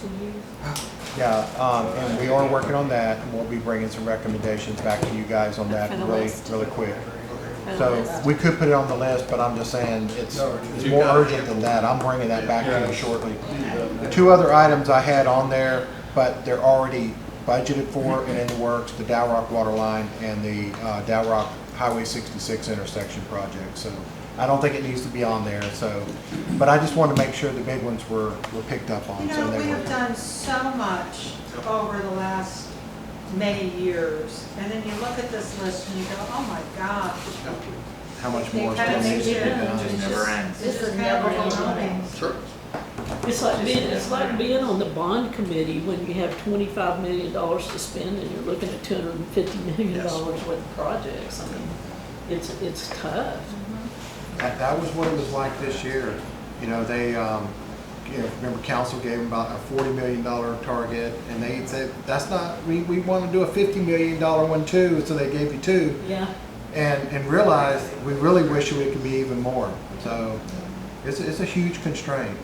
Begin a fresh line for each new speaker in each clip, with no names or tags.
to use?
Yeah, um, and we are working on that, and we'll be bringing some recommendations back to you guys on that
For the
really,
list.
really quick.
For the
So,
list.
we could put it on the list, but I'm just saying, it's, it's
you
more
got it.
urgent than that, I'm bringing that back to
Yeah.
you shortly. The
Yeah.
two other items I had on there, but they're already budgeted for and in the works, the Dow Rock water line and the uh, Dow Rock Highway 66 intersection project. So I don't think it needs to be on there, so, but I just wanted to make sure the big ones were, were picked up
You
on. so
know,
they
we
were-
have done so much over the last many years, and then you look at this list and you go, oh my gosh.
How much
They
more is
kinda
going
make
to be
you-
done?
never ends.
This
is
is never
never
ending.
ending.
Sure.
It's like being, it's like being on the bond committee when you have twenty-five million dollars to spend and you're looking at two hundred and fifty million dollars worth of projects. I mean, it's, it's tough.
That, that was what it was like this year. You know, they, um, you know, remember council gave them about a forty million dollar target and they said, that's not, we, we want to do a fifty million dollar one too, so they gave you two.
Yeah.
and, and realize we really wish we could be even more. So it's, it's a huge constraint.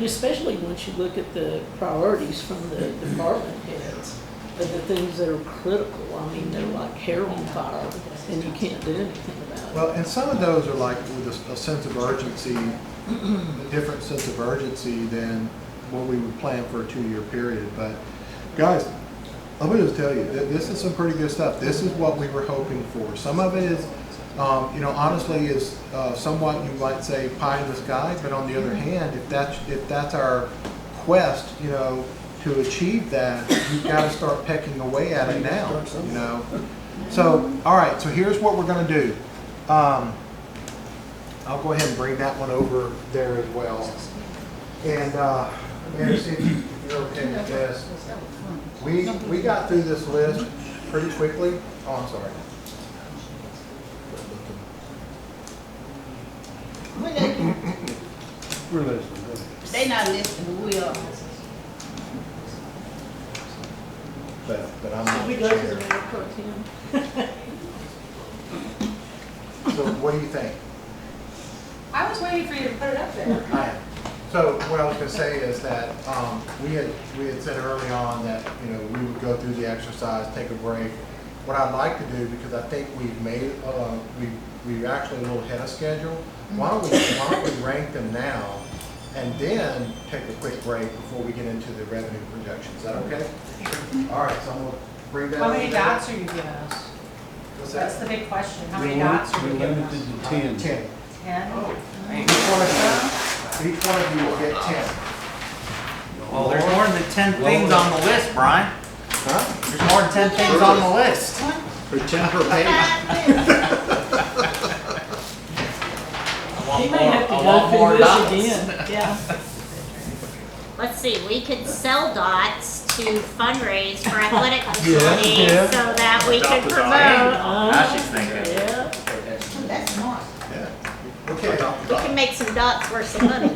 Especially once you look at the priorities from the department heads, of the things that are critical. I mean, they're like hair on fire and you can't do anything about it.
Well, and some of those are like with a, s- a sense of urgency, a different sense of urgency than what we would plan for a two-year period. But guys, let me just tell you, th- this is some pretty good stuff. This is what we were hoping for. Some of it is, um, you know, honestly is uh, somewhat, you might say, pie in the sky. But on the other hand, if that's, if that's our quest, you know, to achieve that, you've got to start pecking away at it now, you know? So, all right, so here's what we're gonna do. Um, I'll go ahead and bring that one over there as well. And, uh, Mayor, see if you're okay with this. We, we got through this list pretty quickly. Oh, I'm sorry.
When they,
We're listening.
they not listening, we are.
But, but I'm
Should we
not
go to the
sure.
mayor pro tem?
So what do you think?
I was waiting for you to put it up there.
Hi. So what I was gonna say is that, um, we had, we had said early on that, you know, we would go through the exercise, take a break. What I'd like to do, because I think we've made, uh, we, we're actually a little ahead of schedule, why don't we, why don't we rank them now? And then take a quick break before we get into the revenue projections, is that okay? All right, so I'm gonna bring that.
How many
over there.
dots are you giving us?
What's
That's
that?
the big question. How
We
many
lim-
dots are you
We
giving
limited
us?
to ten.
Ten.
Ten?
Each one
Oh.
of you, each one of you will get ten.
Well, there's more than ten things on the list, Brian.
Huh?
There's more than ten things on the list. I want
He
more,
may have to
I want
go
more
through this
dots.
again. Yeah.
Let's see, we could sell dots to fundraise for athletic facilities so that we could promote.
Now she's thinking.
Yeah.
That's smart.
Okay.
We can make some dots worth some money.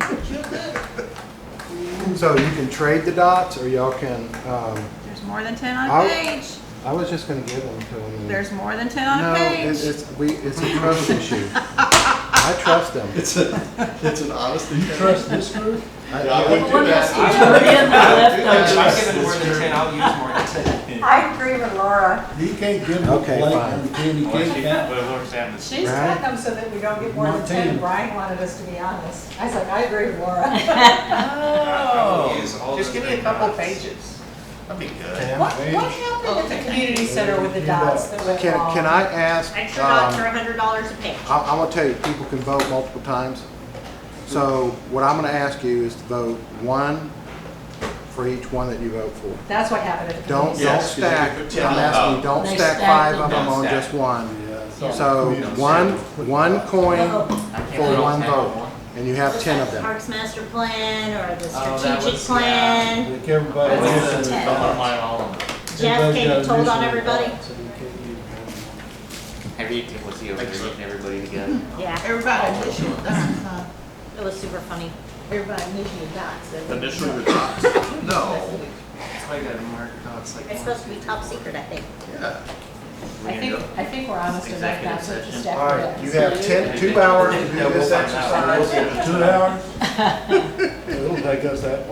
So you can trade the dots, or y'all can, um,
There's more than ten on
I'll-
page.
I was just gonna give them to them.
There's more than ten
No,
on
it-
page.
it's, we, it's a trust issue. I trust them.
It's a, it's an honesty. You trust this group?
I-
Yeah, I wouldn't do
One has
that.
to turn in the leftovers.
I've given more than ten, I'll use more than ten.
I agree with Laura.
You can't give them a
Okay,
blank
fine.
on candy
Well,
cane.
she- but Laura's having this-
She's
Right.
got them so that we don't get more than
Not
ten.
ten.
Brian wanted us to be honest. I was like, I agree with Laura.
Oh,
all
just
those
give me a
big
couple
dots.
pages. That'd be good.
What, what happened at the community center with the dots that went
Can,
wrong?
can I ask,
Extra dots are
um,
a hundred dollars a page.
I, I'm gonna tell you, people can vote multiple times. So what I'm gonna ask you is to vote one for each one that you vote for.
That's what happened at the community
Don't,
center.
don't
Yes, 'cause you
stack,
could
I'm
tell them.
asking, don't
They
stack
stack
five
them.
of them
Don't
on
stack.
just one.
Yeah, so-
So one, one coin
I can't
for
really
one
handle
vote, and you have
Just
ten
like
of
the
them.
Parks master plan or the
Oh, that
strategic
was- yeah.
plan.
Like everybody
What's
else
the-
in the
don't
box.
mind all of them.
Jeff,
Everybody
can
got
you told
initial
on everybody?
box, so you can't give them one.
Have you, was he over there getting everybody together?
Yeah,
Everybody initial dots,
uh,
huh?
it was super funny.
Everybody initial dots. that was-
Initial the dots.
No. That's why I got marked, no, it's like.
It's supposed to be top secret, I think.
We're
I
gonna
think,
go-
I think we're honest enough
Executive
not to
session.
just
All right,
stack
you
it
have ten, two hours to
Yeah,
do
we'll
this
find out.
exercise.
Two hours? It'll take us that